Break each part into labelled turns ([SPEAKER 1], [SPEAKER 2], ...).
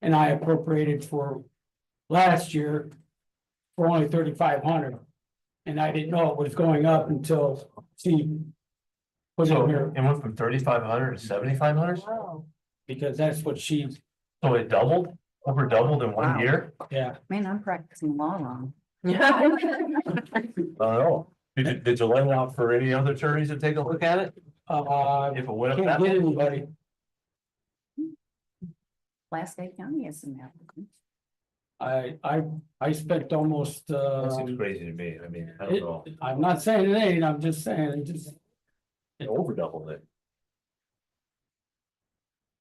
[SPEAKER 1] and I appropriated for last year for only thirty-five hundred. And I didn't know it was going up until Steve was in
[SPEAKER 2] So
[SPEAKER 1] here,
[SPEAKER 2] it went from thirty-five hundred to seventy-five hundred,
[SPEAKER 3] Wow,
[SPEAKER 1] because that's what she,
[SPEAKER 2] so it doubled, over doubled in one
[SPEAKER 3] Wow.
[SPEAKER 2] year?
[SPEAKER 1] yeah, Uh,
[SPEAKER 3] man, I'm practicing law wrong.
[SPEAKER 2] I don't know. Did you, did you lay out for any other attorneys to take a look at it?
[SPEAKER 1] uh,
[SPEAKER 2] If it went up
[SPEAKER 1] can't
[SPEAKER 2] that
[SPEAKER 1] get
[SPEAKER 2] much?
[SPEAKER 1] anybody.
[SPEAKER 3] Alaska County is an applicant.
[SPEAKER 1] I, I, I spent almost, uh.
[SPEAKER 2] That seems crazy to me, I mean, I don't
[SPEAKER 1] It-
[SPEAKER 2] know,
[SPEAKER 1] I'm not saying it ain't, I'm just saying, it just,
[SPEAKER 2] it over doubled it.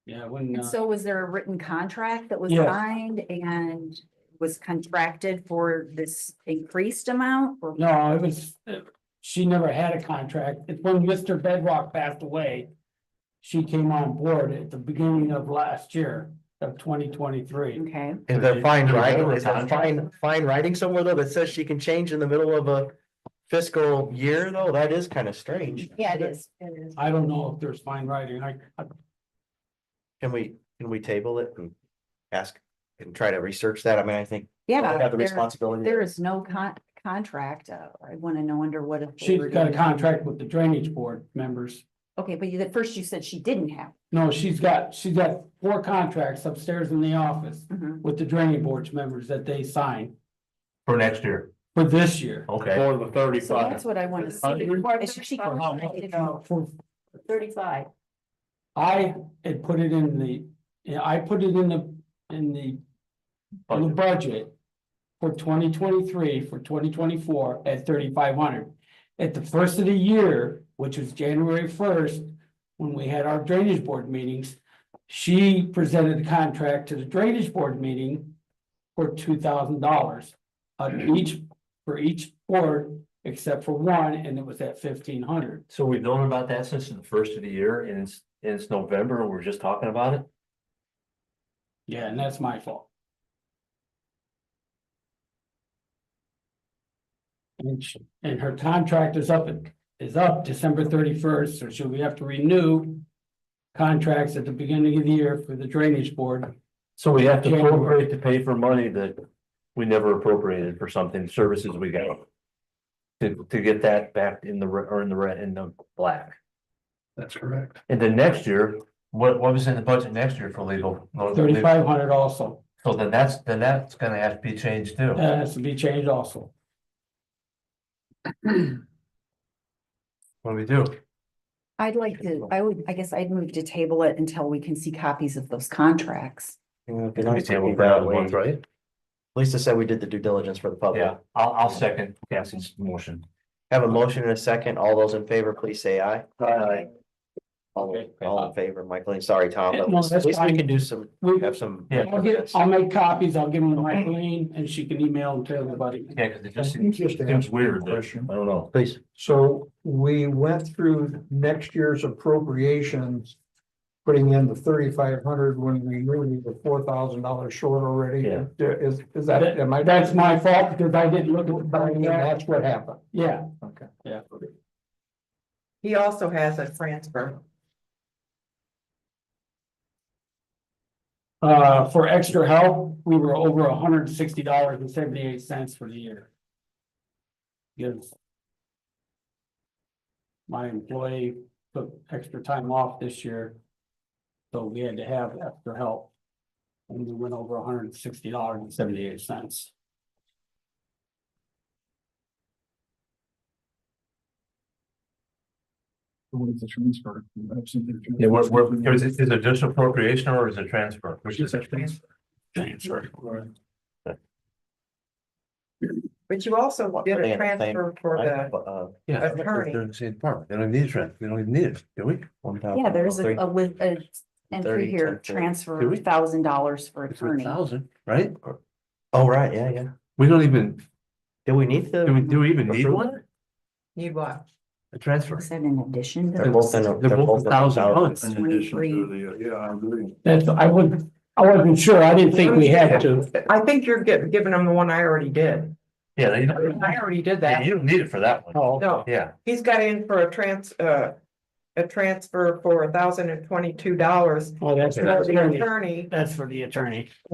[SPEAKER 1] yeah, when,
[SPEAKER 3] And
[SPEAKER 1] uh,
[SPEAKER 3] so was there a written contract that was
[SPEAKER 1] Yes.
[SPEAKER 3] signed and was contracted for this increased amount? or-
[SPEAKER 1] no, it was, uh, she never had a contract. It's when Mr. Bedrock passed away. She came on board at the beginning of last year of twenty twenty-three.
[SPEAKER 3] Okay,
[SPEAKER 4] Is that fine
[SPEAKER 2] Did you
[SPEAKER 4] writing,
[SPEAKER 2] ever
[SPEAKER 4] is that
[SPEAKER 2] contract?
[SPEAKER 4] fine, fine writing somewhere though that says she can change in the middle of a fiscal year though? That is kind of strange.
[SPEAKER 3] yeah, it is, it is.
[SPEAKER 1] I don't know if there's fine writing, I, I-
[SPEAKER 4] Can we, can we table it and ask and try to research that? I mean, I think we
[SPEAKER 3] Yeah,
[SPEAKER 4] have the
[SPEAKER 3] there,
[SPEAKER 4] responsibility.
[SPEAKER 3] there is no con- contract. uh, I want to know under what.
[SPEAKER 1] she's got a
[SPEAKER 3] authority.
[SPEAKER 1] contract with the drainage board members.
[SPEAKER 3] Okay, but you, at first you said she didn't have.
[SPEAKER 1] No, she's got, she's got four contracts upstairs in the office
[SPEAKER 3] Mhm.
[SPEAKER 1] with the drainage board's members that they signed
[SPEAKER 2] For next year,
[SPEAKER 1] for this year.
[SPEAKER 2] okay.
[SPEAKER 4] For the
[SPEAKER 3] So that's what I want to see. Is she
[SPEAKER 1] For how much?
[SPEAKER 3] contracted out
[SPEAKER 1] For
[SPEAKER 3] Thirty-five.
[SPEAKER 1] I had put it in the, yeah, I put it in the, in the, in the
[SPEAKER 2] Budget.
[SPEAKER 1] budget. For twenty twenty-three, for twenty twenty-four at thirty-five hundred. At the first of the year, which was January first, when we had our drainage board meetings. She presented the contract to the drainage board meeting for two thousand dollars. On each, for each board, except for one, and it was at fifteen hundred.
[SPEAKER 2] So we've known about that since the first of the year and it's, and it's November and we're just talking about it?
[SPEAKER 1] Yeah, and that's my fault. And she, and her contract is up, at- is up December thirty-first, so should we have to renew? Contracts at the beginning of the year for the drainage board,
[SPEAKER 2] So we have to
[SPEAKER 1] January.
[SPEAKER 2] appropriate to pay for money that we never appropriated for something, services we got. To, to get that back in the, re- or in the red, in the black.
[SPEAKER 5] That's correct.
[SPEAKER 2] And then next year, what, what was in the budget next year for legal?
[SPEAKER 1] thirty-five hundred also,
[SPEAKER 2] So then that's, then that's gonna have to be changed too.
[SPEAKER 1] that has to be changed also.
[SPEAKER 2] What do we do?
[SPEAKER 3] I'd like to, I would, I guess I'd move to table it until we can see copies of those contracts.
[SPEAKER 2] We table that one,
[SPEAKER 4] Lisa
[SPEAKER 2] right?
[SPEAKER 4] said we did the due diligence for the public.
[SPEAKER 2] Yeah, I'll, I'll second Cassie's motion.
[SPEAKER 4] Have a motion and a second. All those in favor, please say aye.
[SPEAKER 2] Aye.
[SPEAKER 4] All,
[SPEAKER 1] Okay.
[SPEAKER 4] all in favor, Michael, sorry, Tom,
[SPEAKER 1] Yeah,
[SPEAKER 4] but
[SPEAKER 1] no,
[SPEAKER 4] at
[SPEAKER 1] that's
[SPEAKER 4] least we
[SPEAKER 1] fine.
[SPEAKER 4] can do some,
[SPEAKER 1] We,
[SPEAKER 4] have some.
[SPEAKER 2] Yeah.
[SPEAKER 1] I'll get, I'll make copies, I'll give them to Michaeline, and she can email them to everybody.
[SPEAKER 2] Yeah, cause it just
[SPEAKER 5] Let me just
[SPEAKER 2] seems
[SPEAKER 5] ask a
[SPEAKER 2] weird, that-
[SPEAKER 5] question.
[SPEAKER 2] I don't know.
[SPEAKER 4] Please.
[SPEAKER 5] So we went through next year's appropriations. Putting in the thirty-five hundred when we knew we were four thousand dollars short already.
[SPEAKER 2] Yeah.
[SPEAKER 5] Is, is that, am I?
[SPEAKER 1] That's my fault, because I didn't look at the contract,
[SPEAKER 5] That's what happened.
[SPEAKER 1] yeah,
[SPEAKER 5] Okay.
[SPEAKER 1] Yeah.
[SPEAKER 6] He also has a transfer.
[SPEAKER 1] Uh, for extra help, we were over hundred and sixty dollars and seventy-eight cents for the year. Yes. My employee took extra time off this year. So we had to have extra help. And we went over hundred and sixty dollars and seventy-eight cents.
[SPEAKER 5] What is the transfer?
[SPEAKER 2] Yeah, we're, we're, is it, is it just appropriation or is it transfer? Which is it?
[SPEAKER 6] But you also did
[SPEAKER 4] Yeah.
[SPEAKER 6] a transfer for the,
[SPEAKER 4] Uh,
[SPEAKER 2] Yeah.
[SPEAKER 6] That's hurting.
[SPEAKER 2] They're in the same department. They don't need transfer. They don't even need it, do we?
[SPEAKER 4] one
[SPEAKER 2] Uh,
[SPEAKER 4] thousand.
[SPEAKER 3] Yeah, there's a,
[SPEAKER 4] three.
[SPEAKER 3] a, li- a entry
[SPEAKER 4] 30,
[SPEAKER 3] here,
[SPEAKER 4] 10, 30.
[SPEAKER 2] Do
[SPEAKER 3] transfer
[SPEAKER 2] we?
[SPEAKER 3] thousand dollars for
[SPEAKER 2] It's a
[SPEAKER 3] attorney.
[SPEAKER 2] thousand, right? Or-
[SPEAKER 4] Oh, right, yeah, yeah.
[SPEAKER 2] We don't even,
[SPEAKER 4] Do we need
[SPEAKER 2] do we,
[SPEAKER 4] the?
[SPEAKER 2] do we even need
[SPEAKER 4] Approve.
[SPEAKER 2] one?
[SPEAKER 6] you what?
[SPEAKER 2] A transfer?
[SPEAKER 3] Is that in addition? to
[SPEAKER 4] They're both in a-
[SPEAKER 3] those?
[SPEAKER 2] They're both a thousand
[SPEAKER 4] né?
[SPEAKER 2] bucks.
[SPEAKER 3] In addition to
[SPEAKER 5] yeah, I agree.
[SPEAKER 1] That's, I would, I wasn't sure, I didn't think we had to.
[SPEAKER 6] I think you're gi- giving him the one I already did.
[SPEAKER 2] Yeah, you
[SPEAKER 6] I
[SPEAKER 2] don't,
[SPEAKER 6] already did
[SPEAKER 2] yeah,
[SPEAKER 6] that.
[SPEAKER 2] you don't need it for that one.
[SPEAKER 1] Oh,
[SPEAKER 6] No,
[SPEAKER 2] Yeah,
[SPEAKER 6] he's got in for a trans, uh, a transfer for thousand and twenty-two dollars.
[SPEAKER 1] oh, that's,
[SPEAKER 6] The
[SPEAKER 1] that's,
[SPEAKER 6] attorney
[SPEAKER 1] that's for the attorney.